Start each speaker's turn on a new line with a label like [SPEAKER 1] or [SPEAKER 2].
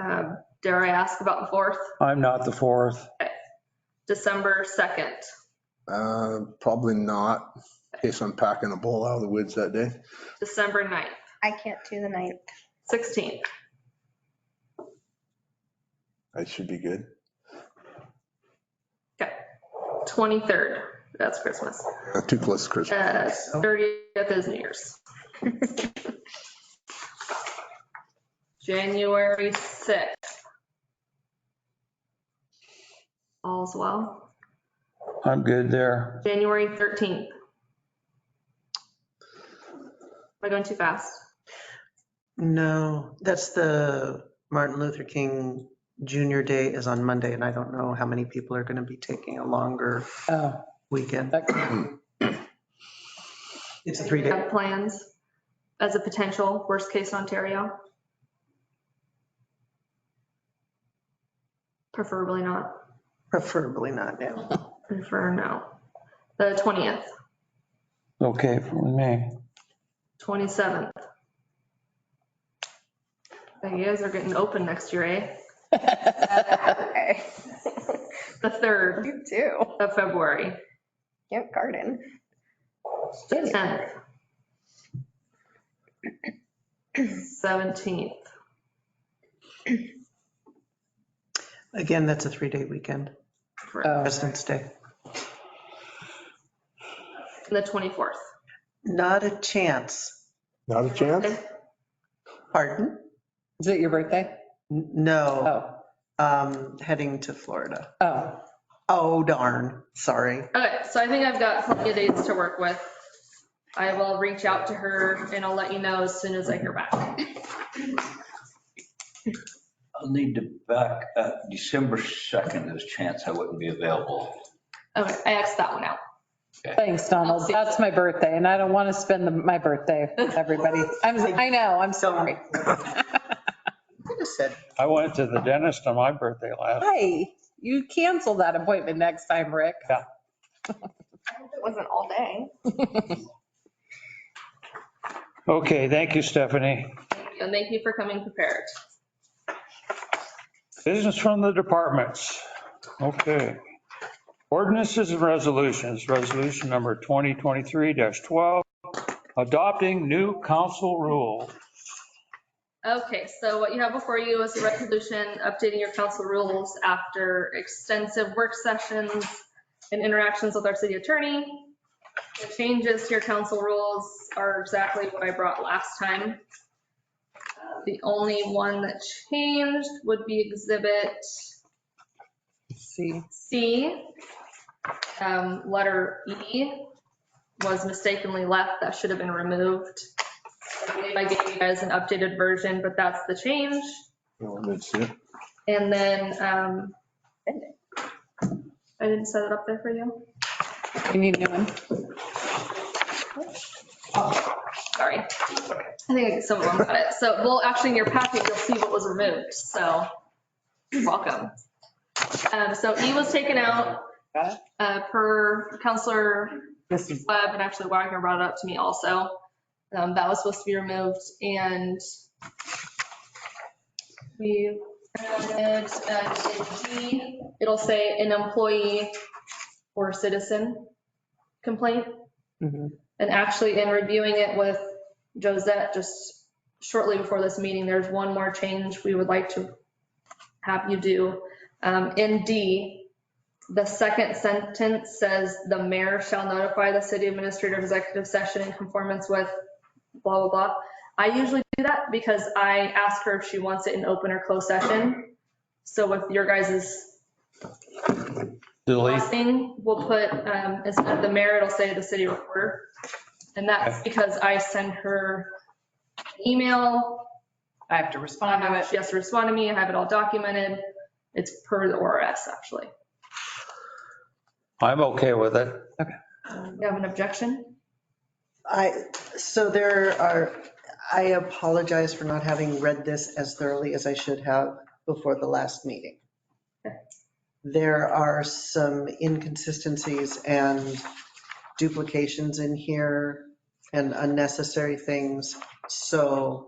[SPEAKER 1] Um, Dare I ask about the 4th,
[SPEAKER 2] I'm not the fourth.
[SPEAKER 1] December 2nd?
[SPEAKER 3] Uh, Probably not, in case I'm packing a bull out of the woods that day.
[SPEAKER 1] December 9th,
[SPEAKER 4] I can't do the ninth.
[SPEAKER 1] 16th.
[SPEAKER 3] I should be good.
[SPEAKER 1] 23rd, that's Christmas.
[SPEAKER 3] Uh, Too close to Christmas.
[SPEAKER 1] Uh, 30th is New Year's. January 6th. All's well.
[SPEAKER 2] I'm good there.
[SPEAKER 1] January 13th. Am I going too fast?
[SPEAKER 5] No, that's the Martin Luther King Junior Day is on Monday, and I don't know how many people are going to be taking a longer
[SPEAKER 2] Oh,
[SPEAKER 5] weekend.
[SPEAKER 2] that could be-
[SPEAKER 5] It's a three day.
[SPEAKER 1] Have plans as a potential worst case Ontario? Preferably not,
[SPEAKER 5] Preferably not now.
[SPEAKER 1] prefer no. The 20th,
[SPEAKER 2] Okay, for me.
[SPEAKER 1] 27th. You guys are getting open next year, eh?
[SPEAKER 4] Okay.
[SPEAKER 1] The 3rd
[SPEAKER 4] You too.
[SPEAKER 1] of February,
[SPEAKER 4] You have garden.
[SPEAKER 1] 10th. 17th,
[SPEAKER 5] Again, that's a three day weekend,
[SPEAKER 6] Oh,
[SPEAKER 1] correct.
[SPEAKER 5] President's Day.
[SPEAKER 1] And the 24th.
[SPEAKER 5] Not a chance.
[SPEAKER 3] Not a chance?
[SPEAKER 1] Okay.
[SPEAKER 5] Pardon?
[SPEAKER 6] Is it your birthday?
[SPEAKER 5] N- No,
[SPEAKER 6] Oh,
[SPEAKER 5] um, heading to Florida.
[SPEAKER 6] oh,
[SPEAKER 5] Oh darn, sorry.
[SPEAKER 1] Okay, so I think I've got plenty of dates to work with. I will reach out to her and I'll let you know as soon as I hear back.
[SPEAKER 7] I'll need to back, uh, December 2nd, there's a chance I wouldn't be available.
[SPEAKER 1] Okay, I Xed that one out.
[SPEAKER 6] thanks, Donald. That's my birthday and I don't want to spend the- my birthday with everybody. I'm, I know, I'm sorry.
[SPEAKER 5] Could have said
[SPEAKER 2] I went to the dentist on my birthday last.
[SPEAKER 6] Hi, you cancel that appointment next time, Rick.
[SPEAKER 4] It wasn't all day.
[SPEAKER 2] Okay, thank you, Stephanie.
[SPEAKER 1] And thank you for coming prepared.
[SPEAKER 2] Business from the departments. Okay. Ordinances and resolutions, resolution number 2023-12, adopting new council rule.
[SPEAKER 1] Okay, so what you have before you is a resolution updating your council rules after extensive work sessions and interactions with our city attorney. The changes to your council rules are exactly what I brought last time. The only one that changed would be exhibit
[SPEAKER 6] See,
[SPEAKER 1] C, um, letter E was mistakenly left. That should have been removed. I believe I gave you guys an updated version, but that's the change.
[SPEAKER 3] No, that's it.
[SPEAKER 1] And then, um, I didn't set it up there for you.
[SPEAKER 6] you need a new one?
[SPEAKER 1] Sorry. I think some of them got it. So, well, actually in your packet, you'll see what was removed. So you're welcome. Um, so E was taken out,
[SPEAKER 6] Got it?
[SPEAKER 1] uh, per Counselor
[SPEAKER 6] This is
[SPEAKER 1] Webb and actually Wagner brought it up to me also. Um, that was supposed to be removed and we added, uh, in G, it'll say an employee or citizen complaint.
[SPEAKER 6] Mhm.
[SPEAKER 1] And actually in reviewing it with Josette just shortly before this meeting, there's one more change we would like to have you do. Um, in D, the second sentence says, "The mayor shall notify the city administrator of executive session in conformance with blah, blah, blah." I usually do that because I ask her if she wants it in open or closed session. So with your guys'
[SPEAKER 2] Delete.
[SPEAKER 1] blessing, we'll put, um, instead of the mayor, it'll say the city recorder. And that's because I send her email.
[SPEAKER 8] I have to respond to it.
[SPEAKER 1] She has to respond to me. I have it all documented. It's per the ORS, actually.
[SPEAKER 2] I'm okay with it.
[SPEAKER 1] You have an objection?
[SPEAKER 5] I, so there are, I apologize for not having read this as thoroughly as I should have before the last meeting. There are some inconsistencies and duplications in here and unnecessary things. So